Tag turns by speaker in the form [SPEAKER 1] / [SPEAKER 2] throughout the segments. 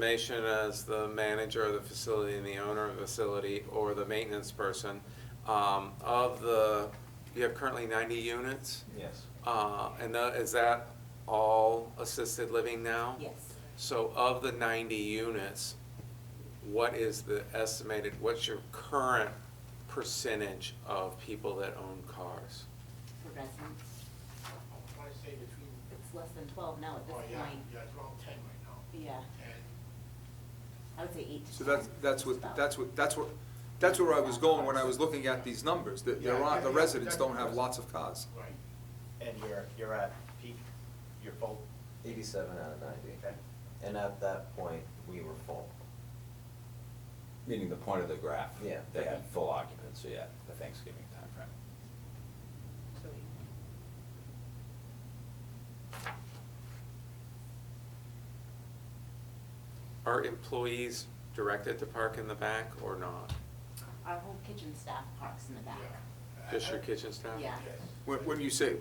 [SPEAKER 1] estimation as the manager of the facility and the owner of the facility or the maintenance person. Um, of the, you have currently ninety units,
[SPEAKER 2] Yes.
[SPEAKER 1] uh, and tha- is that all assisted living now?
[SPEAKER 3] Yes.
[SPEAKER 1] So of the ninety units, what is the estimated, what's your current percentage of people that own cars?
[SPEAKER 3] For residents,
[SPEAKER 4] I wanna say between,
[SPEAKER 3] it's less than twelve now at this
[SPEAKER 4] oh, yeah,
[SPEAKER 3] point.
[SPEAKER 4] yeah, it's around ten right now.
[SPEAKER 3] Yeah,
[SPEAKER 4] And
[SPEAKER 3] I would say eight to
[SPEAKER 5] So that's,
[SPEAKER 3] 10
[SPEAKER 5] that's
[SPEAKER 3] is
[SPEAKER 5] what,
[SPEAKER 3] about-
[SPEAKER 5] that's what, that's what, that's where I was going when I was looking at these numbers, that there aren't, the residents don't have lots of cars.
[SPEAKER 4] Right.
[SPEAKER 6] And you're, you're at peak, you're full?
[SPEAKER 2] Eighty-seven out of ninety.
[SPEAKER 6] Okay.
[SPEAKER 2] And at that point, we were full.
[SPEAKER 7] Meaning the point of the graph.
[SPEAKER 2] Yeah.
[SPEAKER 7] They had full occupancy at the Thanksgiving timeframe.
[SPEAKER 1] Are employees directed to park in the back or not?
[SPEAKER 3] Our whole kitchen staff parks in the back.
[SPEAKER 4] Yeah.
[SPEAKER 1] Just your kitchen staff?
[SPEAKER 3] Yeah.
[SPEAKER 4] Yes.
[SPEAKER 5] When, when you say,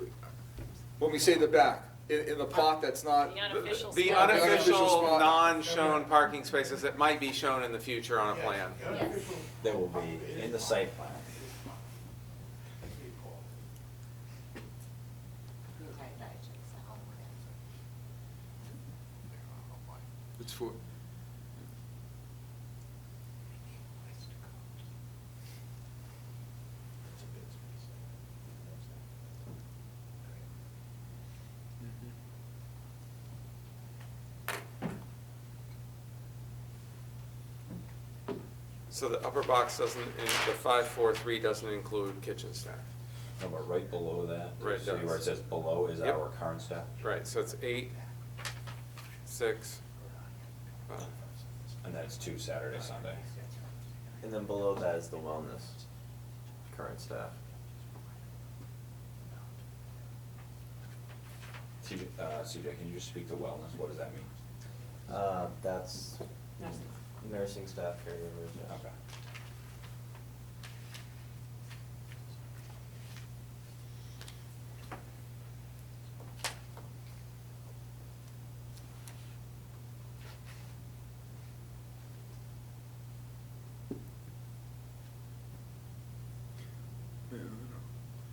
[SPEAKER 5] when we say the back, in, in the pot that's not.
[SPEAKER 8] The unofficial
[SPEAKER 1] The
[SPEAKER 8] spot.
[SPEAKER 1] unofficial,
[SPEAKER 5] spot.
[SPEAKER 1] non-shown parking spaces that might be shown in the future on a
[SPEAKER 4] Yeah,
[SPEAKER 1] plan.
[SPEAKER 4] the unofficial-
[SPEAKER 7] They will be in the site plan.
[SPEAKER 4] It's pretty cool.
[SPEAKER 3] We were tired about it, so it's all over there.
[SPEAKER 5] It's for,
[SPEAKER 4] It's a bit space.
[SPEAKER 1] So the upper box doesn't, in- the five, four, three doesn't include kitchen staff.
[SPEAKER 7] No, but right below that,
[SPEAKER 1] Right,
[SPEAKER 7] see where it
[SPEAKER 1] that's-
[SPEAKER 7] says below is
[SPEAKER 1] Yep.
[SPEAKER 7] our current staff?
[SPEAKER 1] Right, so it's eight, six, five.
[SPEAKER 7] And that's two Saturday, Sunday.
[SPEAKER 2] And then below that is the wellness, current staff.
[SPEAKER 7] CJ, uh, CJ, can you just speak to wellness? What does that mean?
[SPEAKER 2] Uh, that's
[SPEAKER 3] Nursing.
[SPEAKER 2] nursing staff caregivers, yeah.
[SPEAKER 7] Okay.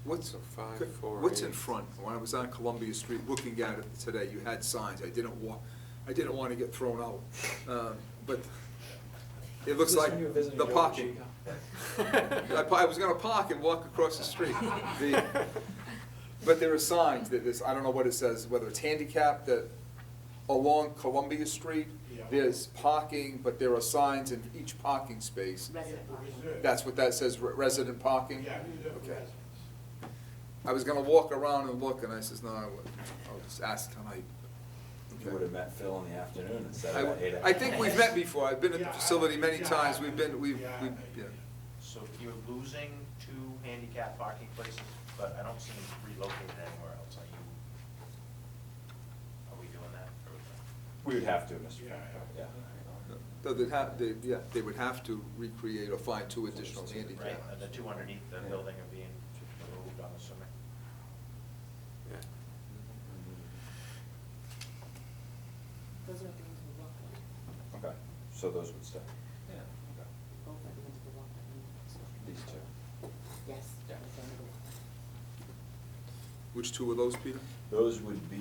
[SPEAKER 5] what's,
[SPEAKER 1] So five, four,
[SPEAKER 5] what's
[SPEAKER 1] eight.
[SPEAKER 5] in front? When I was on Columbia Street looking at it today, you had signs, I didn't wa, I didn't wanna get thrown out, um, but it looks like the parking. I, pa- I was gonna park and walk across the street. The- But there are signs that this, I don't know what it says, whether it's handicapped, that along Columbia Street,
[SPEAKER 4] Yeah.
[SPEAKER 5] there's parking, but there are signs in each parking space.
[SPEAKER 3] Resident parking.
[SPEAKER 4] Reserve.
[SPEAKER 5] That's what that says, re- resident parking?
[SPEAKER 4] Yeah, reserve
[SPEAKER 5] Okay.
[SPEAKER 4] residence.
[SPEAKER 5] I was gonna walk around and look, and I says, no, I wouldn't. I'll just ask tonight.
[SPEAKER 7] You would have met Phil in the afternoon instead
[SPEAKER 5] I,
[SPEAKER 7] of at eight.
[SPEAKER 5] I think we've met before, I've been at
[SPEAKER 4] Yeah,
[SPEAKER 5] the
[SPEAKER 4] I-
[SPEAKER 5] facility many
[SPEAKER 4] yeah,
[SPEAKER 5] times,
[SPEAKER 4] I-
[SPEAKER 5] we've been, we've,
[SPEAKER 4] yeah,
[SPEAKER 5] we've,
[SPEAKER 4] I-
[SPEAKER 5] yeah.
[SPEAKER 6] So you're losing two handicap parking places, but I don't see them relocated anywhere else, are you? Are we doing that?
[SPEAKER 7] We would have to, Mr. Chairman.
[SPEAKER 4] Yeah.
[SPEAKER 5] Though they'd have, they, yeah, they would have to recreate or find two additional
[SPEAKER 6] Right,
[SPEAKER 7] uh,
[SPEAKER 5] handicap.
[SPEAKER 6] and the two underneath the
[SPEAKER 7] Yeah.
[SPEAKER 6] building are being removed, I'm assuming.
[SPEAKER 1] Yeah.
[SPEAKER 3] Those are the ones we walk on,
[SPEAKER 7] Okay, so those would stay.
[SPEAKER 2] Yeah.
[SPEAKER 7] Okay.
[SPEAKER 3] both are the ones we walk on.
[SPEAKER 7] These two.
[SPEAKER 3] Yes.
[SPEAKER 7] Yeah.
[SPEAKER 3] those are the ones.
[SPEAKER 5] Which two of those, Peter?
[SPEAKER 7] Those would be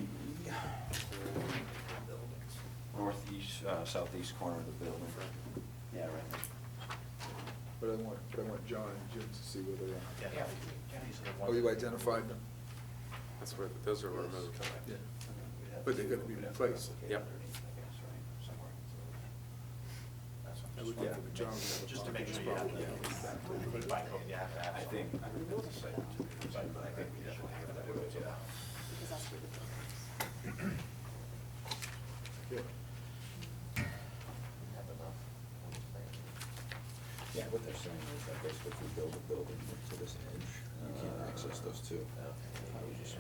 [SPEAKER 7] northeast, uh, southeast corner of the building. Yeah, right.
[SPEAKER 5] But I want, but I want John and Jim to see where they are.
[SPEAKER 6] Yeah. These are the
[SPEAKER 5] Oh,
[SPEAKER 6] ones-
[SPEAKER 5] you identified them?
[SPEAKER 1] That's where, those are removed.
[SPEAKER 5] Yeah. But they're gonna be replaced.
[SPEAKER 1] Yep.
[SPEAKER 6] That's what I'm
[SPEAKER 5] I
[SPEAKER 6] just
[SPEAKER 5] would get
[SPEAKER 6] wondering.
[SPEAKER 5] the majority of the
[SPEAKER 6] Just to make
[SPEAKER 5] parking
[SPEAKER 6] sure you have
[SPEAKER 5] spots.
[SPEAKER 6] the, by code, you have to have.
[SPEAKER 7] I think, I think that's a site. But I think we definitely have that, yeah.
[SPEAKER 3] Because that's where the buildings.
[SPEAKER 5] Yeah.
[SPEAKER 2] Have enough.
[SPEAKER 7] Yeah, what they're saying is that basically if we build a building to this edge, you can't access those two. I was just-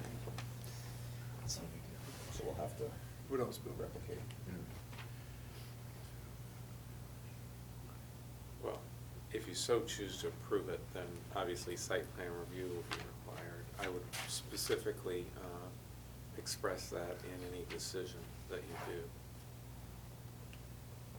[SPEAKER 7] So we'll have to
[SPEAKER 5] What else, Bill?
[SPEAKER 7] replicate.
[SPEAKER 1] Well, if you so choose to approve it, then obviously site plan review will be required. I would specifically uh, express that in any decision that you do.